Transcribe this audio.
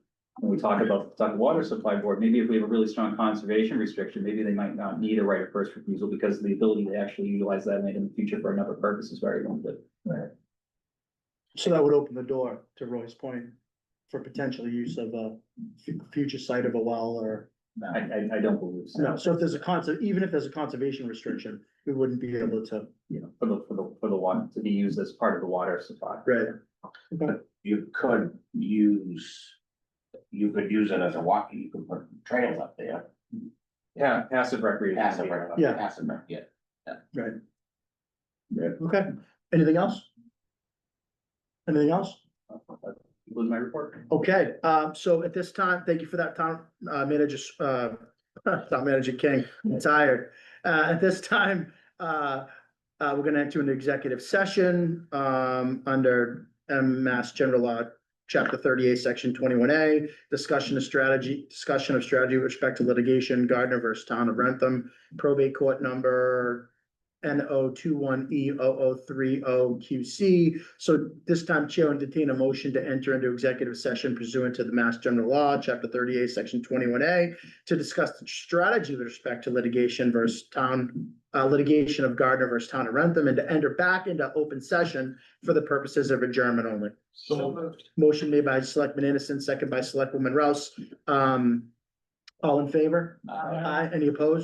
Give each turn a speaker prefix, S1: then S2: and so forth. S1: we talk about the Kentucky Water Supply Board, maybe if we have a really strong conservation restriction, maybe they might not need a right of first refusal because the ability to actually utilize that land in the future for another purpose is very limited.
S2: So that would open the door to Roy's point for potential use of a fu- future site of a well or.
S1: I, I, I don't believe so,
S2: No, so if there's a conser, even if there's a conservation restriction, we wouldn't be able to.
S1: you know, for the, for the, for the water, to be used as part of the water supply.
S2: Right.
S3: you could use. You could use it as a walk, you could put trails up there,
S1: Yeah, passive recreation.
S3: passive, rec-
S2: Yeah.
S3: passive, rec, yeah.
S2: Okay, anything else? Anything else?
S1: Was my report.
S2: Okay, um, so at this time, thank you for that town, uh, manager, uh, town manager King, I'm tired. Uh, at this time, uh, uh, we're gonna enter an executive session, um, under M Mass General Law, Chapter thirty-eight, Section twenty-one A, discussion of strategy, discussion of strategy with respect to litigation, Gardner versus Town of Rentham, probate court number N O two one E O O three O Q C. So this time Chair will entertain a motion to enter into executive session pursuant to the Mass General Law, Chapter thirty-eight, Section twenty-one A, to discuss the strategy with respect to litigation versus town, uh, litigation of Gardner versus Town of Rentham, and to enter back into open session for the purposes of adjournment only.
S3: So
S2: Motion made by Selectman Innocent, second by Selectwoman Rouse. Um, all in favor? Aye. Any opposed?